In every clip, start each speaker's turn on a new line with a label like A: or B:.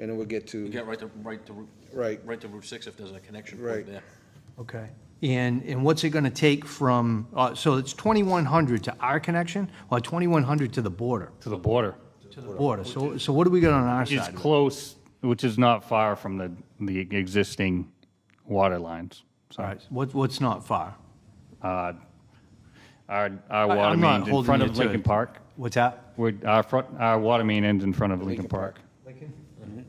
A: and then we'll get
B: You
A: to,
B: get right to, right to, Route-
A: right,
B: right to Route 6 if there's a connection
A: Right.
B: point there.
C: Okay. And, and what's it going to take from, uh, so it's 2,100 to our connection or 2,100 to the border?
D: to the border.
C: To the border. So, so what do we got on our
D: It's
C: side?
D: close, which is not far from the, the existing water lines.
C: All
D: So uh,
C: right, what, what's not far?
D: our, our
C: I-
D: water
C: I'm not
D: main in
C: holding
D: front
C: you
D: of
C: to
D: Lincoln
C: it.
D: Park.
C: What's that?
D: We're, our front, our water main ends in front of Lincoln Park. Mm-hmm.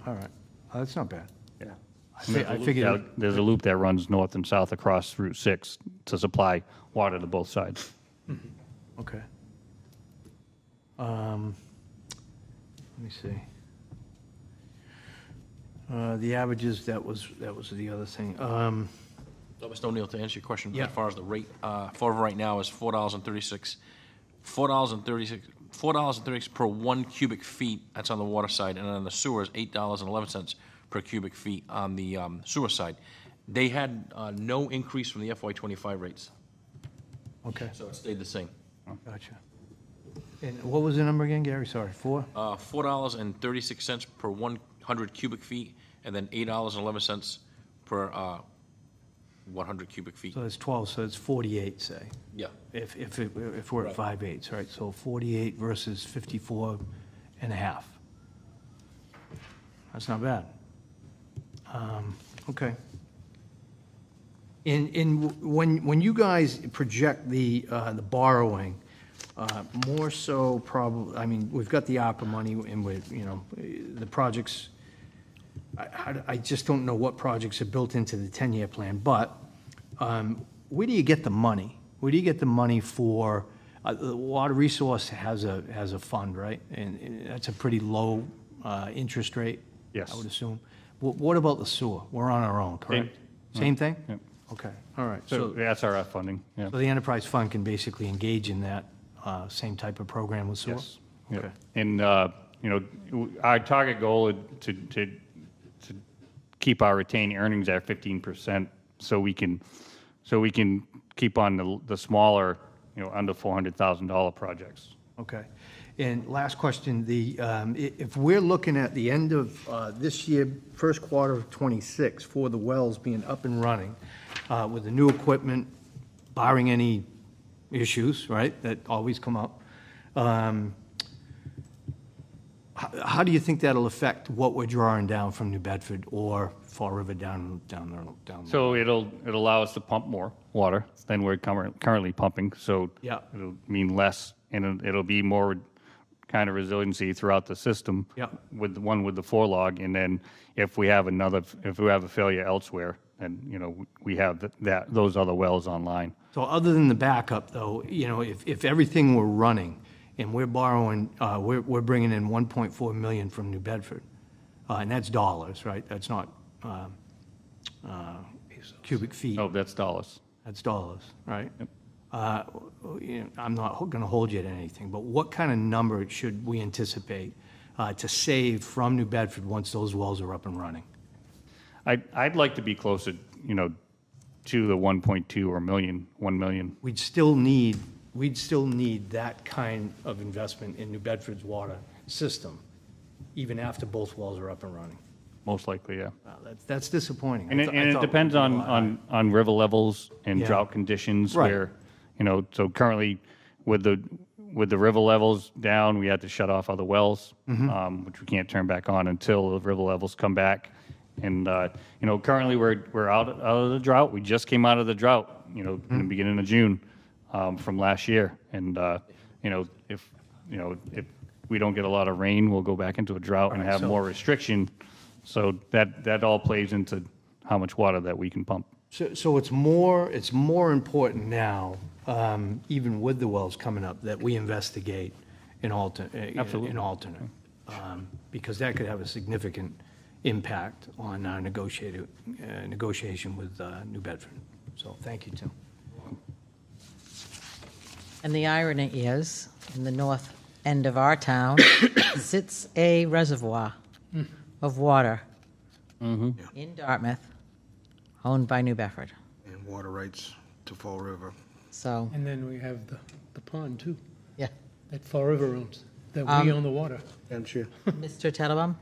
C: All right, Oh, that's not bad.
D: Yeah.
C: I fi- I
D: Yeah,
C: figured,
D: There's a loop that runs north and south across Route 6 to supply water to both sides.
C: okay. Um, Let me see. Uh, The averages, that was, that was the other thing. Um,
B: So, Mr. O'Neill, to answer your question,
C: Yeah.
B: as far as the rate, uh, for right now is four dollars and thirty-six, four dollars and thirty-six, four dollars and thirty-six per one cubic feet, that's on the water side, and on the sewer is eight dollars and eleven cents per cubic feet on the um, sewer side. They had uh, no increase from the FY twenty-five rates,
C: Okay,
B: so it stayed the same.
C: gotcha. And what was the number again, Gary? Sorry, four?
B: Uh, four dollars and thirty-six cents per one hundred cubic feet, and then eight dollars and eleven cents per, uh, one hundred cubic feet.
C: So it's 12, so it's 48, say,
B: Yeah,
C: if, if, it- if we're at
B: Right.
C: five eighths, right? So 48 versus 54 and a half. That's not bad. Um, Okay. And, and w- when, when you guys project the, uh, the borrowing, uh, more so probably, I mean, we've got the opera money and we, you know, the projects, I- I, I just don't know what projects are built into the 10-year plan, but um, where do you get the money? Where do you get the money for, uh, the Water Resource has a, has a fund, right? And- And that's a pretty low uh, interest rate?
D: Yes.
C: I would assume. Wh- What about the sewer? We're on our own, correct? Same thing?
D: Yep.
C: Okay, all right.
D: So
C: So
D: that's our funding, yeah.
C: so the enterprise fund can basically engage in that uh, same type of program with sewer?
D: Yes. Yeah.
C: Okay.
D: And, uh, you know, w- our target goal is to, to, to keep our retained earnings at fifteen percent so we can, so we can keep on the, the smaller, you know, under four hundred thousand dollar projects.
C: Okay. And last question, the, um, i- if we're looking at the end of uh, this year, first quarter of '26, for the wells being up and running uh, with the new equipment, barring any issues, right, that always come up, um, h- how do you think that'll affect what we're drawing down from New Bedford or Fall River down, down there? down there?
D: So it'll, it'll allow us to pump more water than we're current- currently pumping, so.
C: Yeah.
D: It'll mean less, and it'll- it'll be more kind of resiliency throughout the system.
C: Yeah.
D: With the one with the four log, and then if we have another, if we have a failure elsewhere, then, you know, we have th- that, those other wells online.
C: So other than the backup, though, you know, if, if everything were running and we're borrowing, uh, we're, we're bringing in 1.4 million from New Bedford, uh, and that's dollars, right? That's not um, uh, cubic feet,
D: Oh, that's dollars.
C: that's dollars, right? Uh, you know, I'm not going to hold you to anything, but what kind of number should we anticipate uh, to save from New Bedford once those wells are up and running?
D: I, I'd like to be closer, you know, to the 1.2 or million, 1 million.
C: we'd still need, we'd still need that kind of investment in New Bedford's water system, even after both wells are up and running.
D: most likely, yeah.
C: Wow, that's, that's disappointing. I
D: And it,
C: thought- I
D: and it
C: thought we'd
D: depends
C: do a
D: on,
C: lot.
D: on, on river levels and
C: Yeah.
D: drought conditions
C: Right.
D: where, you know, so currently with the, with the river levels down, we had to shut off other wells,
C: Mm-hmm.
D: um, which we can't turn back on until the river levels come back. And, uh, you know, currently we're, we're out, out of the drought. We just came out of the drought, you know,
C: Mm-hmm.
D: in the beginning of June, um, from last year. And, uh, you know, if, you know, if we don't get a lot of rain, we'll go back into a drought and
C: Alright,
D: have
C: so-
D: more restriction. So that, that all plays into how much water that we can pump.
C: So, so it's more, it's more important now, um, even with the wells coming up, that we investigate an alter, uh, an alternate. um, Because that could have a significant impact on our negotiated, uh, negotiation with uh, New Bedford. So thank you, Tim.
E: And the irony is, in the north end of our town sits a reservoir of water in Dartmouth, owned by New Bedford.
A: and water rights to Fall River.
E: So,
F: And then we have the, the pond too,
E: yeah.
F: that Fall River owns, that we own the water.
A: Madam Chair?
E: Mr. Tettelbaum?